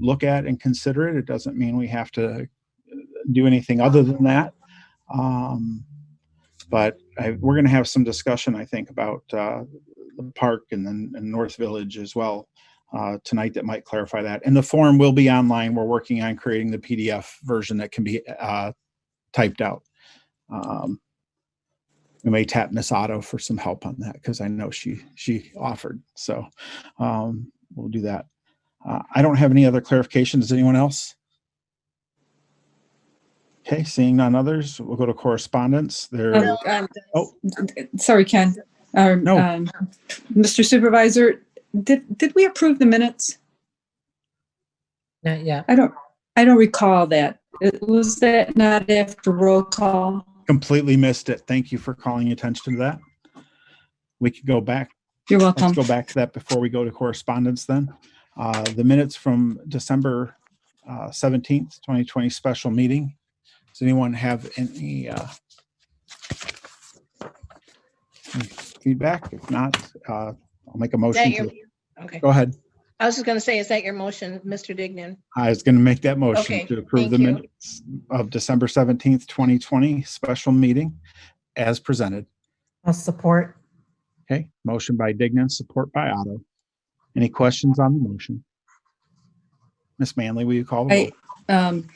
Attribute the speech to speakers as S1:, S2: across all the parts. S1: look at and consider it. It doesn't mean we have to uh, do anything other than that. Um, but I, we're going to have some discussion, I think, about uh, the park and then and North Village as well uh, tonight that might clarify that. And the form will be online. We're working on creating the PDF version that can be uh, typed out. Um, we may tap Miss Otto for some help on that because I know she she offered. So um, we'll do that. Uh, I don't have any other clarifications. Anyone else? Okay, seeing none others, we'll go to correspondence. There,
S2: Um, um,
S1: Oh.
S2: Sorry, Ken. Um,
S1: No.
S2: um, Mr. Supervisor, did, did we approve the minutes?
S3: Not yet.
S2: I don't, I don't recall that. It- Was that not after roll call?
S1: completely missed it. Thank you for calling attention to that. We could go back
S2: You're welcome.
S1: Let's go back to that before we go to correspondence then. Uh, The minutes from December uh, 17th, 2020 special meeting. Does anyone have any uh, any feedback? If not, uh, I'll make a
S4: Is that
S1: motion.
S4: your,
S1: to-
S4: okay.
S1: Go ahead.
S4: I was just gonna say, is that your motion, Mr. Dignan?
S1: I was going to make that motion
S4: Okay,
S1: to approve
S4: thank
S1: the
S4: you.
S1: minutes of December 17th, 2020 special meeting as presented.
S3: I'll support.
S1: Okay, motion by Dignan, support by Otto. Any questions on the motion? Miss Manley, will you call the
S2: I,
S1: roll?
S2: um,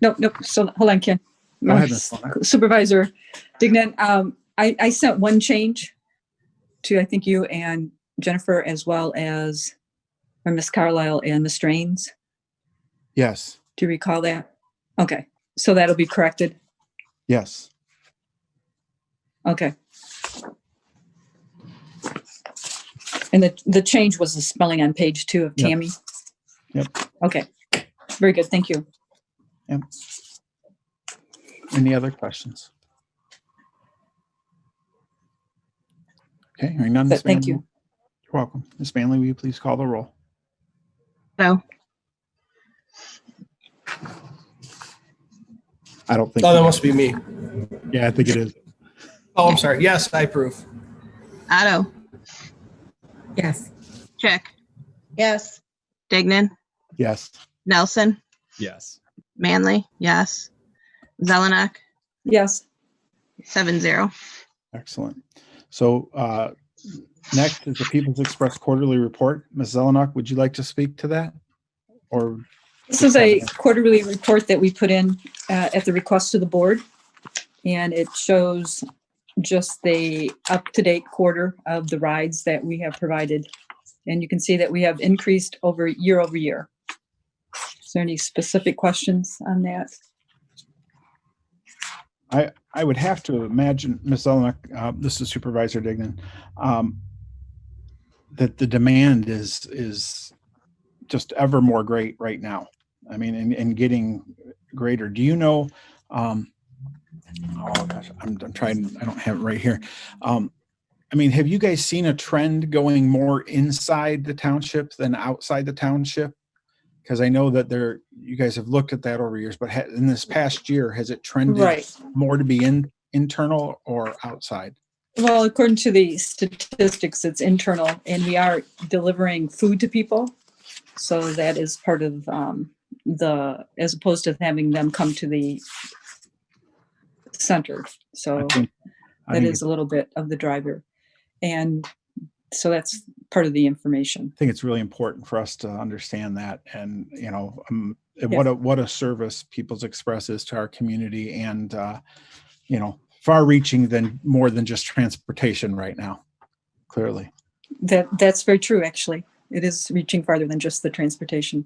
S2: nope, nope, so, hold on, Ken.
S1: Go ahead, Ms. Lawler.
S2: Supervisor Dignan, um, I, I sent one change to, I think you and Jennifer, as well as, or Miss Carlisle and Miss Strains.
S1: Yes,
S2: Do you recall that? Okay, so that'll be corrected.
S1: yes.
S2: Okay. And the, the change was the spelling on page two of
S1: Yep.
S2: Tammy?
S1: Yep.
S2: Okay, very good, thank you.
S1: Any other questions? Okay, hearing none. Miss
S2: Thank
S1: Manley.
S2: you.
S1: You're welcome. Miss Manley, will you please call the roll?
S4: No.
S1: I don't think,
S5: Oh, that must be me.
S1: yeah, I think it is.
S5: Oh, I'm sorry. Yes, I approve.
S6: Otto,
S3: Yes.
S6: check.
S4: Yes,
S6: Dignan,
S1: Yes,
S6: Nelson,
S7: Yes.
S6: Manley, yes. Zelenak,
S2: Yes,
S6: seven zero.
S1: excellent. So uh, next is the People's Express Quarterly Report. Ms. Zelenak, would you like to speak to that? Or
S2: this is a quarterly report that we put in uh, at the request of the board. And it shows just the up-to-date quarter of the rides that we have provided. And you can see that we have increased over, year over year. Is there any specific questions on that?
S1: I would have to imagine, Ms. Zelenak, uh, this is Supervisor Dignan, um, that the demand is, is just ever more great right now. I mean, and, and getting greater. Do you know, um, oh gosh, I'm, I'm trying, I don't have it right here. Um, I mean, have you guys seen a trend going more inside the township than outside the township? Because I know that there, you guys have looked at that over years, but ha- in this past year, has it trended? more to be in internal or outside?
S2: Well, according to the statistics, it's internal and we are delivering food to people. So that is part of um, the, as opposed to having them come to the center.
S1: I
S2: So
S1: think- I
S2: Oh, that
S1: think-
S2: is a little bit of the driver. And so that's part of the information.
S1: I think it's really important for us to understand that and, you know, um, and what
S2: Yes.
S1: a, what a service People's Express is to our community and, uh, you know, far reaching than, more than just transportation right now, clearly.
S2: That, that's very true, actually. It is reaching farther than just the transportation.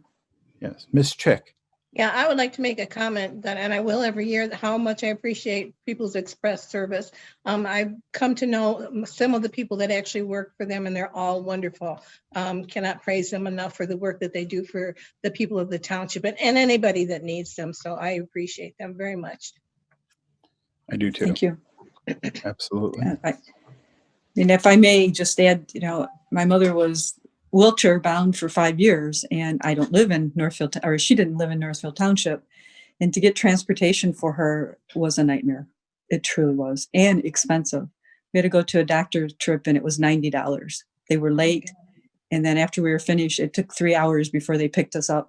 S1: Yes. Ms. Chick,
S4: yeah, I would like to make a comment that, and I will every year, that how much I appreciate People's Express service. Um, I've come to know some of the people that actually work for them and they're all wonderful. Um, cannot praise them enough for the work that they do for the people of the township and, and anybody that needs them. So I appreciate them very much.
S1: I do too.
S2: Thank you.
S1: Absolutely.
S2: Uh, I- And if I may just add, you know, my mother was wheelchair bound for five years and I don't live in Northfield, or she didn't live in Northfield Township. And to get transportation for her was a nightmare. It truly was, and expensive. We had to go to a doctor trip and it was ninety dollars. They were late And then after we were finished, it took three hours before they picked us up.